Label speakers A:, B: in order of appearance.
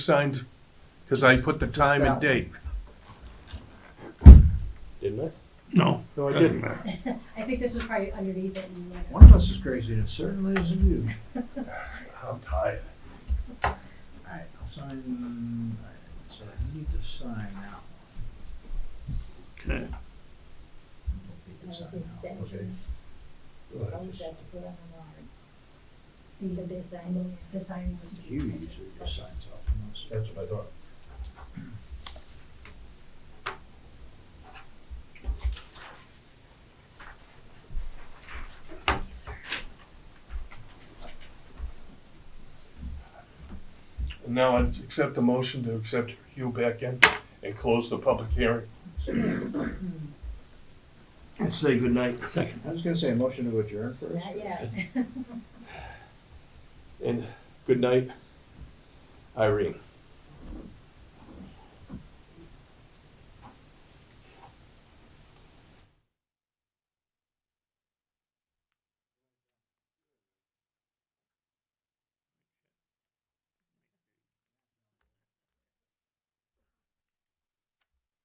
A: signed, because I put the time and date.
B: Didn't I?
A: No.
B: No, I
A: doesn't
B: didn't.
A: matter.
C: I think this was probably underneath it. and like-
D: One of us is crazy, and it certainly isn't you.
A: I'm tired.
D: Alright, I'll sign, alright, so I need to sign now.
A: Okay.
D: I need to sign now, okay? Go ahead, just
C: The design, the sign was.
D: You usually just signs off on those.
B: That's what I thought.
A: Now I accept the motion to accept Hugh back in and close the public hearing.
E: And say goodnight. Second.
D: I was gonna say, a motion to adjourn first.
C: Not yet.
B: And good night, Irene.